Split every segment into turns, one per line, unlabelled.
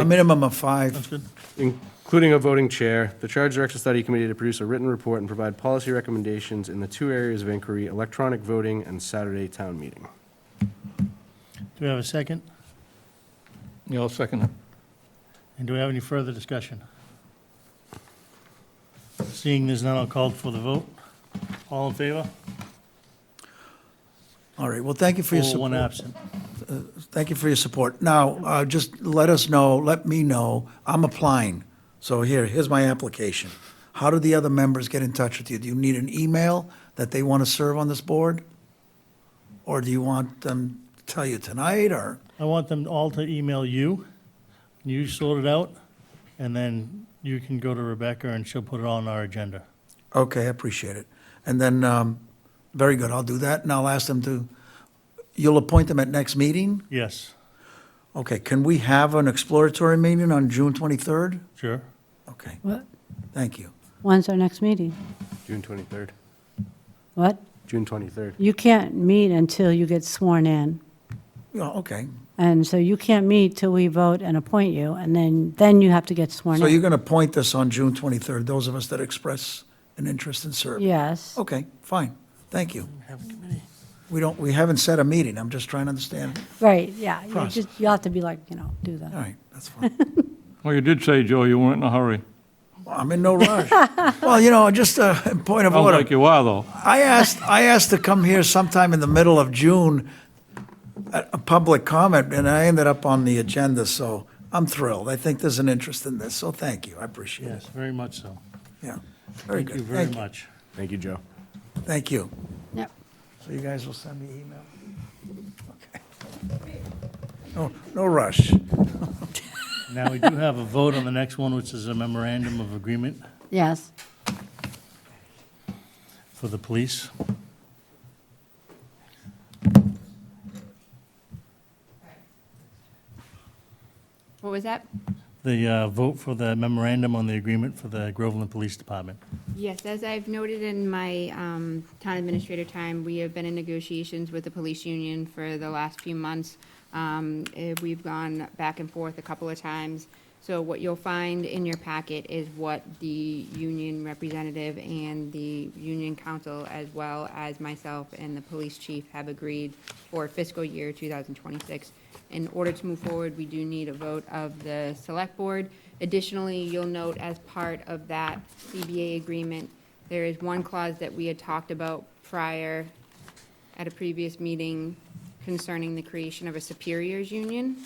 A minimum of five.
including a voting chair, the charge directs the study committee to produce a written report and provide policy recommendations in the two areas of inquiry, electronic voting and Saturday town meeting.
Do we have a second?
Yeah, I'll second it.
And do we have any further discussion? Seeing there's none, I'll call for the vote. All in favor?
All right, well, thank you for your
Four, One
support.
absent.
Thank you for your support. Now, uh, just let us know, let me know, I'm applying. So here, here's my application. How do the other members get in touch with you? Do you need an email that they want to serve on this board? Or do you want them to tell you tonight, or,
I want them all to email you. You sort it out, and then you can go to Rebecca and she'll put it on our agenda.
okay, I appreciate it. And then, um, very good, I'll do that, and I'll ask them to, you'll appoint them at next meeting?
Yes,
Okay, can we have an exploratory meeting on June 23rd?
sure.
Okay,
What?
thank you.
When's our next meeting?
June 23rd,
What?
June 23rd.
You can't meet until you get sworn in.
Yeah, okay.
And so you can't meet till we vote and appoint you, and then, then you have to get sworn
So you're
in.
going to point this on June 23rd, those of us that express an interest in serving?
Yes.
Okay, fine, thank you. We don't, we haven't set a meeting, I'm just trying to understand.
Right, yeah. You
Process.
just, you'll have to be like, you know, do
All
that.
right, that's fine.
Well, you did say, Joe, you weren't in a hurry.
Well, I'm in no rush. Well, you know, just a point of
Sounds
order.
like you are, though.
I asked, I asked to come here sometime in the middle of June, a a public comment, and I ended up on the agenda, so I'm thrilled. I think there's an interest in this, so thank you, I appreciate it.
Yes, very much so.
Yeah, very
Thank
good.
you very much.
Thank you, Joe.
Thank you.
Yep.
So you guys will send me email? Okay. No, no rush.
Now, we do have a vote on the next one, which is a memorandum of agreement
Yes.
for the police.
What was that?
The uh, vote for the memorandum on the agreement for the Groveland Police Department.
Yes, as I've noted in my um, town administrator time, we have been in negotiations with the police union for the last few months. Um, eh, We've gone back and forth a couple of times. So what you'll find in your packet is what the union representative and the union council, as well as myself and the police chief, have agreed for fiscal year 2026. In order to move forward, we do need a vote of the select board. Additionally, you'll note as part of that CBA agreement, there is one clause that we had talked about prior at a previous meeting concerning the creation of a superiors union.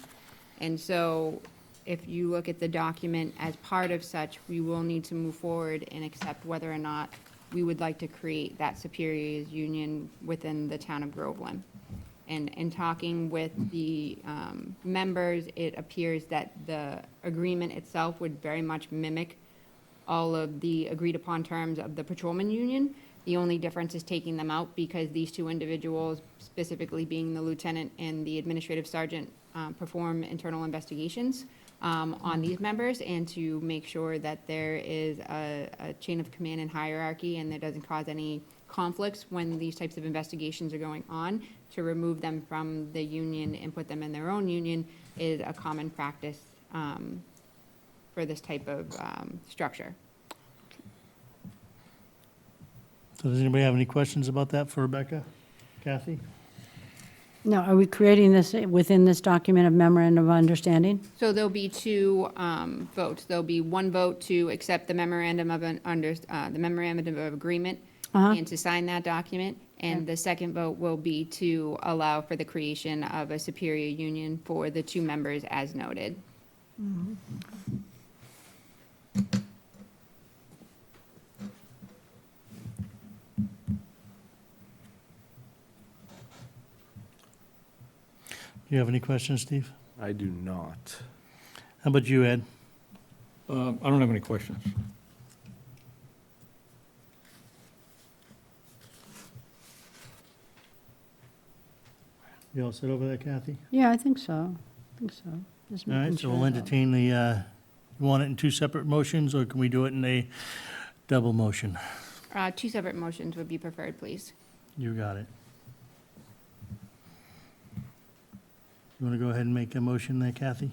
And so if you look at the document as part of such, we will need to move forward and accept whether or not we would like to create that superiors union within the town of Groveland. And in talking with the um, members, it appears that the agreement itself would very much mimic all of the agreed-upon terms of the patrolman union. The only difference is taking them out because these two individuals, specifically being the lieutenant and the administrative sergeant, um, perform internal investigations um, on these members and to make sure that there is a a chain of command and hierarchy and that doesn't cause any conflicts when these types of investigations are going on, to remove them from the union and put them in their own union is a common practice um, for this type of um, structure.
So does anybody have any questions about that for Rebecca? Kathy?
No, are we creating this eh, within this document of memorandum of understanding?
So there'll be two um, votes. There'll be one vote to accept the memorandum of an under, uh, the memorandum of agreement and to sign that document. And the second vote will be to allow for the creation of a superior union for the two members as noted.
Do you have any questions, Steve?
I do not.
How about you, Ed?
Uh, I don't have any questions.
You all sit over there, Kathy?
Yeah, I think so. I think so. Just
All right,
making
so
sure
we'll
that-
entertain the, uh, you want it in two separate motions, or can we do it in a double motion?
Uh, Two separate motions would be preferred, please.
You got it. You want to go ahead and make a motion there, Kathy?